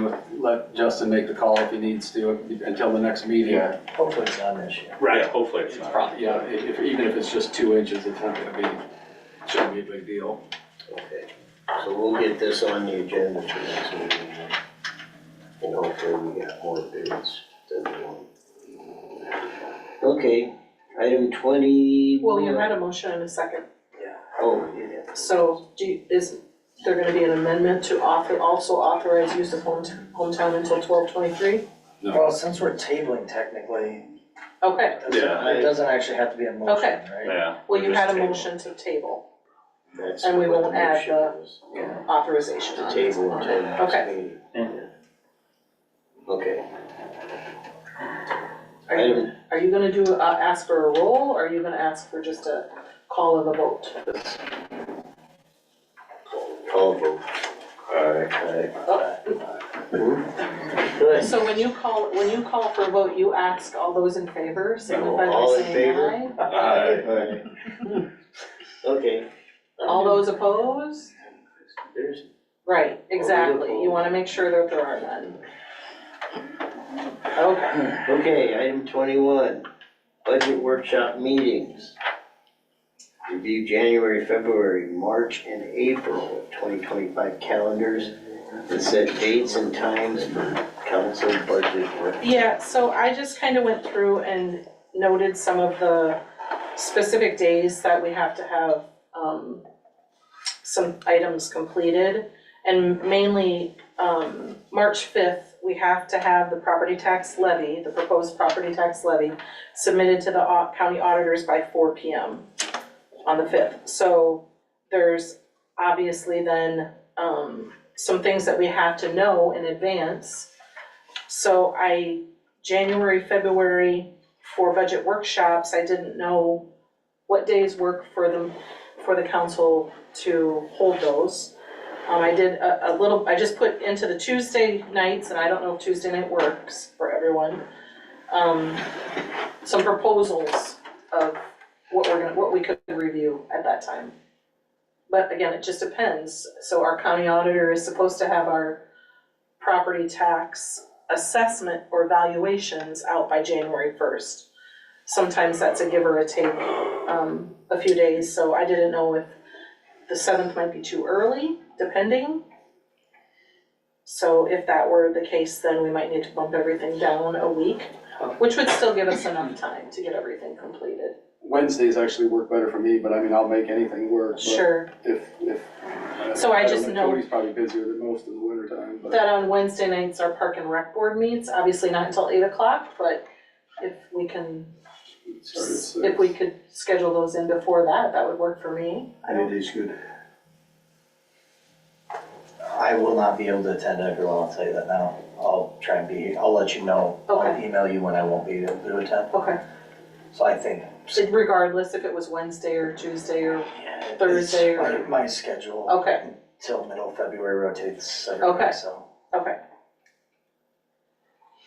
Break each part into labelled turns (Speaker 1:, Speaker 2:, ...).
Speaker 1: gonna let Justin make the call if he needs to until the next meeting.
Speaker 2: Yeah.
Speaker 3: Hopefully it's on this year.
Speaker 2: Yeah,
Speaker 4: Right,
Speaker 2: Hopefully it's
Speaker 1: It's
Speaker 2: not.
Speaker 1: probably, yeah, if, if- even if it's just two inches, it's not gonna be, shouldn't be a big deal.
Speaker 3: Okay, so we'll get this on the agenda for next meeting. then. And hopefully we got more bids than one. Okay, item twenty.
Speaker 5: Well, you had a motion and a second,
Speaker 3: Oh, yeah.
Speaker 5: so do, you- is there gonna be an amendment to author, also authorize use of home, hometown until twelve twenty-three?
Speaker 6: Well, since we're tabling technically,
Speaker 5: Okay,
Speaker 6: it doesn't-
Speaker 2: Yeah.
Speaker 6: it doesn't actually have to be a motion,
Speaker 5: Okay.
Speaker 6: right?
Speaker 2: Yeah.
Speaker 5: well, you
Speaker 2: just
Speaker 5: had a
Speaker 2: table.
Speaker 5: motion to table
Speaker 3: that's
Speaker 5: And we
Speaker 3: what
Speaker 5: will add
Speaker 3: motion
Speaker 5: the-
Speaker 3: is,
Speaker 5: authorization
Speaker 3: To
Speaker 5: on it.
Speaker 3: table until next
Speaker 5: Okay.
Speaker 3: meeting.
Speaker 6: Yeah.
Speaker 3: Okay,
Speaker 5: Are you, are you gonna do, uh, ask for a roll, or are you gonna ask for just a call of the vote?
Speaker 3: call vote.
Speaker 2: Alright.
Speaker 3: Aye.
Speaker 5: Oh. So when you call, when you call for a vote, you ask all those in favor, signify by
Speaker 3: All in
Speaker 5: saying
Speaker 3: favor?
Speaker 5: aye.
Speaker 2: Aye.
Speaker 3: Okay.
Speaker 5: All those opposed?
Speaker 3: There's,
Speaker 5: Right, exactly, you wanna make sure that there are none. Okay.
Speaker 3: Okay, item twenty-one, budget workshop meetings. Review January, February, March, and April of twenty twenty-five calendars and set dates and times for council budget work.
Speaker 5: Yeah, so I just kind of went through and noted some of the specific days that we have to have, um, some items completed. And mainly, um, March fifth, we have to have the property tax levy, the proposed property tax levy submitted to the au- county auditors by four P M on the fifth. So there's obviously then, um, some things that we have to know in advance. So I, January, February, for budget workshops, I didn't know what days work for them, for the council to hold those. Um, I did a, a little, I just put into the Tuesday nights, and I don't know if Tuesday night works for everyone. Um, some proposals of what we're gonna, what we could review at that time. But again, it just depends, so our county auditor is supposed to have our property tax assessment or valuations out by January first. Sometimes that's a give or a take, um, a few days, so I didn't know if the seventh might be too early, depending. So if that were the case, then we might need to bump everything down a week, which would still give us enough time to get everything completed.
Speaker 1: Wednesdays actually work better for me, but I mean, I'll make anything work, but
Speaker 5: Sure,
Speaker 1: if, if.
Speaker 5: So I
Speaker 1: don't
Speaker 5: just know-
Speaker 1: Cody's probably busier than most in the winter time, but.
Speaker 5: that on Wednesday nights, our park and rec board meets, obviously not until eight o'clock, but if we can
Speaker 1: Start at six.
Speaker 5: If we could schedule those in before that, that would work for me. I don't,
Speaker 1: is good.
Speaker 6: I will not be able to attend everyone, I'll tell you that now. I'll try and be, I'll let you know. I'll
Speaker 5: Okay.
Speaker 6: email you when I won't be able to attend.
Speaker 5: okay,
Speaker 6: So I think
Speaker 5: So regardless if it was Wednesday or Tuesday or,
Speaker 6: yeah, it's-
Speaker 5: Thursday or-
Speaker 6: My, my schedule
Speaker 5: okay,
Speaker 6: till middle of February rotates every
Speaker 5: Okay.
Speaker 6: week, so.
Speaker 5: okay.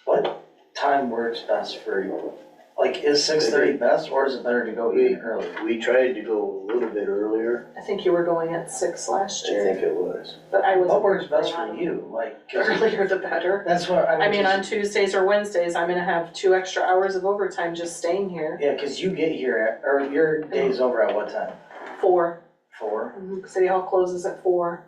Speaker 6: What time works best for you? Like, is six thirty best or is it better to go even earlier?
Speaker 3: We tried to go a little bit earlier,
Speaker 5: I think you were going at six
Speaker 3: I
Speaker 5: last year,
Speaker 3: think it was.
Speaker 5: but I was.
Speaker 6: What works best for you? Like, 'cause
Speaker 5: Earlier the better.
Speaker 6: that's what I mean.
Speaker 5: I mean,
Speaker 6: 'cause-
Speaker 5: on Tuesdays or Wednesdays, I'm gonna have two extra hours of overtime just staying here.
Speaker 6: Yeah, cause you get here at, or your day's over at what time?
Speaker 5: Four,
Speaker 6: Four?
Speaker 5: Mhm. city hall closes at 4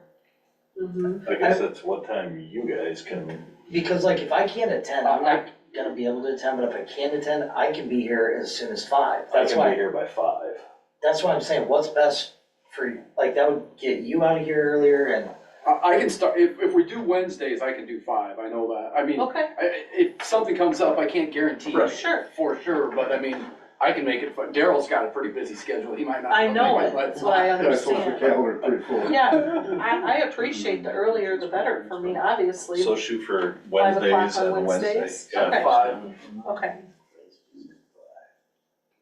Speaker 5: Mm-hmm,
Speaker 4: I guess that's what time you guys can,
Speaker 6: Because like if I can't attend, I'm not gonna be able to attend, but if I can attend, I can be here as soon as five.
Speaker 4: I
Speaker 6: That's
Speaker 4: can be
Speaker 6: why,
Speaker 4: here by five.
Speaker 6: that's why I'm saying what's best for, you. like, that would get you out of here earlier and,
Speaker 1: I, I can start, if, if we do Wednesdays, I can do five, I know that, I mean, I,
Speaker 5: okay,
Speaker 1: I- if something comes up, I can't guarantee
Speaker 2: Right.
Speaker 5: sure,
Speaker 1: for sure, but I mean, I can make it, fun. Daryl's got a pretty busy schedule, he might not.
Speaker 5: I know
Speaker 1: he
Speaker 5: it,
Speaker 1: might-
Speaker 5: that's what I understand.
Speaker 1: calendar pretty full.
Speaker 5: Yeah, I, I appreciate the earlier the better for me, obviously,
Speaker 2: So shoot for
Speaker 5: Five o'clock
Speaker 2: Wednesdays
Speaker 5: on
Speaker 2: and Wednesday.
Speaker 5: Wednesdays?
Speaker 2: Yeah,
Speaker 5: Okay.
Speaker 2: five.
Speaker 5: Okay.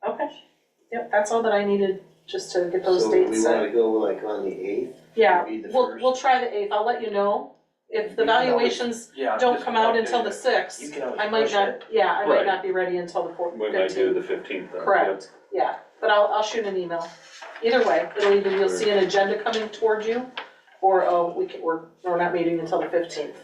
Speaker 5: Okay, yep, that's all that I needed, just to get those dates
Speaker 3: So we
Speaker 5: set.
Speaker 3: wanna go like on the eighth,
Speaker 5: Yeah,
Speaker 3: be the
Speaker 5: we'll,
Speaker 3: first.
Speaker 5: we'll try the eighth, I'll let you know. If the
Speaker 3: We can always-
Speaker 5: valuations
Speaker 1: Yeah.
Speaker 5: don't
Speaker 1: just
Speaker 5: come out
Speaker 1: update
Speaker 5: until the
Speaker 1: it.
Speaker 6: you
Speaker 5: sixth,
Speaker 6: can always
Speaker 5: I might
Speaker 6: push it.
Speaker 5: not, yeah, I might
Speaker 2: Right.
Speaker 5: not be ready until the fourth,
Speaker 2: We might do
Speaker 5: fifteenth,
Speaker 2: the fifteenth then.
Speaker 5: Correct. yeah, but I'll, I'll shoot an email. Either way, it'll either, you'll see an agenda coming toward you, or, oh, we can, we're, we're not meeting until the fifteenth.